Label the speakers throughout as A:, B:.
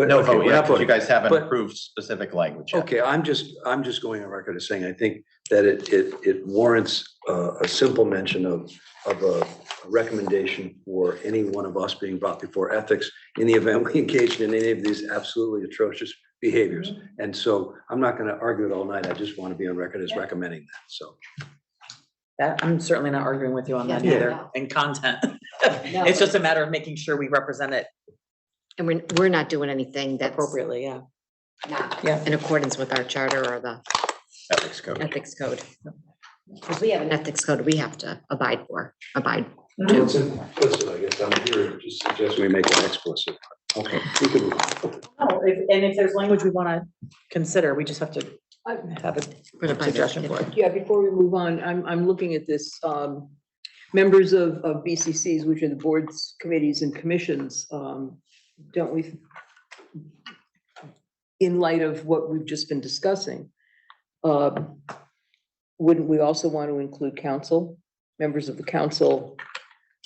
A: But-
B: No
A: okay,
B: vote
A: we're
B: yet,
A: not
B: 'cause you
A: voting.
B: guys haven't
A: But-
B: approved specific language yet.
A: Okay, I'm just, I'm just going on record as saying, I think that it, it, it warrants a, a simple mention of, of a recommendation for any one of us being brought before ethics in the event we engaged in any of these absolutely atrocious behaviors. And so I'm not gonna argue it all night. I just want to be on record as recommending that, so.
C: That, I'm certainly not arguing with you on that
D: Yeah, no,
C: either,
D: no.
C: in content. It's just a matter of making sure we represent it
D: And we're, we're not doing anything that's
C: appropriately, yeah.
D: not
C: Yeah.
D: in accordance with our charter or the
B: Ethics code.
D: ethics code. Because we have an ethics code we have to abide for, abide.
A: It's implicit, I guess. I'm here to suggest. We make it explicit. Okay. we can move on.
C: No, if- And if there's language we want to consider, we just have to
E: I-
C: have
D: We're not
C: a
D: by
C: suggestion
D: the-
C: for it.
E: Uh, Yeah, before we move on, I'm, I'm looking at this, um, members of, of BCCs, which are the boards, committees and commissions, um, don't we? In light of what we've just been discussing, um, wouldn't we also want to include council, members of the council,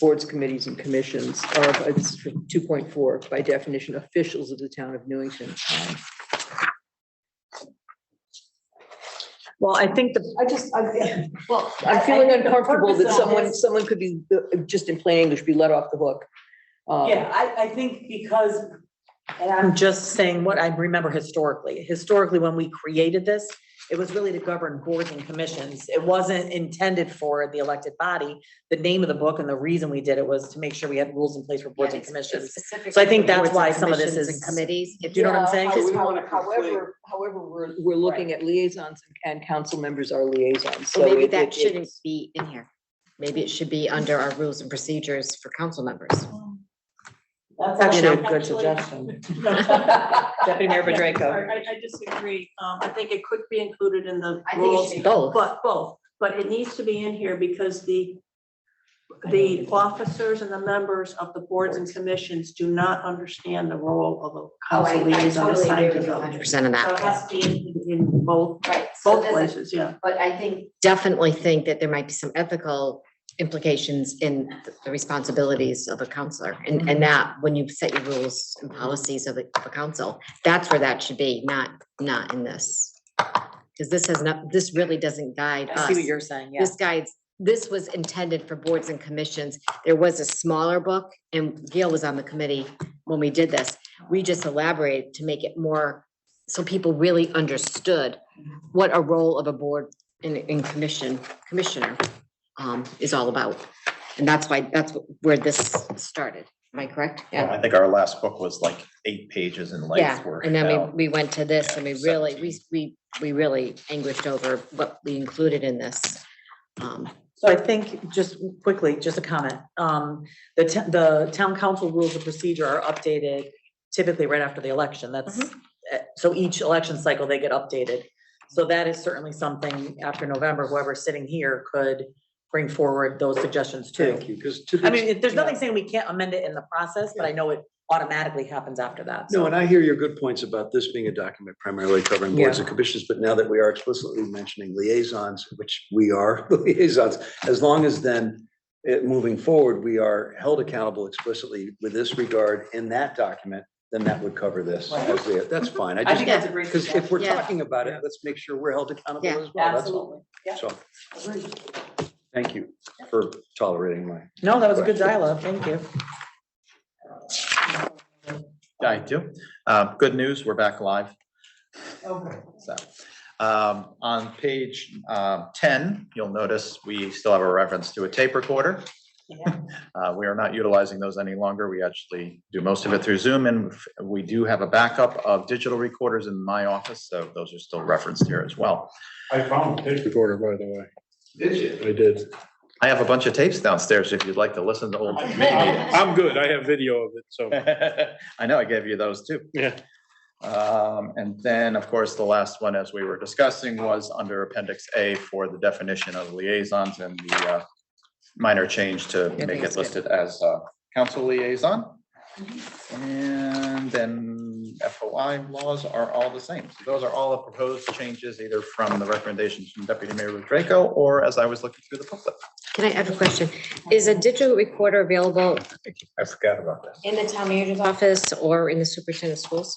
E: boards, committees and commissions, Uh, or it's two point four by definition, officials of the town of Newington. Um,
C: Well, I think the,
E: I just, I,
D: Well,
E: I'm feeling
F: think the
E: uncomfortable that
F: purpose of
E: someone,
F: this-
E: someone could be, uh, just in plain English, be let off the hook. Um,
F: Yeah, I, I think because, and
C: I'm
F: I'm,
C: just saying what I remember historically. Historically, when we created this, it was really to govern boards and commissions. It wasn't intended for the elected body. The name of the book and the reason we did it was to make sure we had rules in place for boards and commissions. So I think that's why some of this
D: Specifically boards and commissions and
C: is-
D: Committees.
C: Do you know what I'm saying?
F: Yeah,
E: Because
F: we don't wanna
E: however, however, we're, we're looking at liaisons and council members are liaisons, so.
D: Well, maybe
E: it-
D: that
E: it-
D: shouldn't
E: it's-
D: be in here. Maybe it should be under our rules and procedures for council members.
F: that's
C: That's actually a
F: actually-
C: good suggestion.
F: Deputy
C: Mayor Bedrejko.
F: I, I disagree. Um, I think it could be included in the
D: I think it
F: rules,
D: should be both.
F: but both, but it needs to be in here because the, the officers and the members of the boards and commissions do not understand the role
D: Oh,
F: of a council liaison assigned to
D: Hundred
F: them.
D: percent of
F: So it
D: that.
F: has to be in, in both,
D: Right. so
F: both
D: that's-
F: places, yeah.
D: But I think. Definitely think that there might be some ethical implications in the responsibilities of a counselor. And,
C: Mm-hmm.
D: and that, when you set your rules and policies of a, of a council, that's where that should be, not, not in this. Because this has not, this really doesn't guide us.
C: I see what you're saying, yeah.
D: This guides, this was intended for boards and commissions. There was a smaller book, and Gail was on the committee when we did this. We just elaborated to make it more, so people really understood what a role of a board and, and commission, commissioner um, is all about. And that's why, that's where this started. Am I correct?
B: Well, I think our last book was like eight pages in
D: Yeah,
B: length. We're
D: and then
B: now-
D: we, we went to this and we
B: Yeah,
D: really, we, we, we really anguished over what we included in this. Um,
C: So I think, just quickly, just a comment, um, the, t- the town council rules of procedure are updated typically right after the election, that's, eh, so each election cycle, they get updated. So that is certainly something after November, whoever's sitting here could bring forward those suggestions too.
A: Thank you, because to. the
C: I mean, it- there's
A: extent-
C: nothing saying we can't amend it in the process, but I know it automatically happens after that, so.
A: No, and I hear your good points about this being a document primarily covering boards and commissions, but now that we are explicitly mentioning liaisons, which we are the liaisons, as long as then it, moving forward, we are held accountable explicitly with this regard in that document, then that would cover this. as lia- That's fine. I
F: I think
A: just,
F: that's a great
A: because if we're
D: Yeah.
A: talking about it, let's make sure we're held accountable
D: Yeah.
A: as well. That's all. So,
F: Absolutely.
A: thank you for tolerating my.
C: No, that was a good dialogue, thank you.
B: I do. Uh, Good news, we're back live. So, um, on page, um, ten, you'll notice we still have a reference to a tape recorder.
F: Yeah.
B: Uh, we are not utilizing those any longer. We actually do most of it through Zoom and we do have a backup of digital recorders in my office, so those are still referenced here as well.
G: I found it.
H: recorder, by the way.
G: Did you?
H: I did.
B: I have a bunch of tapes downstairs if you'd like to listen to old.
H: I'm good. I have video of it, so.
B: I know, I gave you those too.
H: Yeah.
B: Um, and then, of course, the last one, as we were discussing, was under appendix A for the definition of liaisons and the uh, minor change to
D: think
B: make
D: it's
B: it
D: good.
B: listed as uh, council liaison. And then FOI laws are all the same. So those are all the proposed changes either from the recommendations from Deputy Mayor Draco or as I was looking through the booklet.
D: Can I have a question? Is a digital recorder available
B: I forgot about that.
D: in the town manager's office or in the superintendent's schools?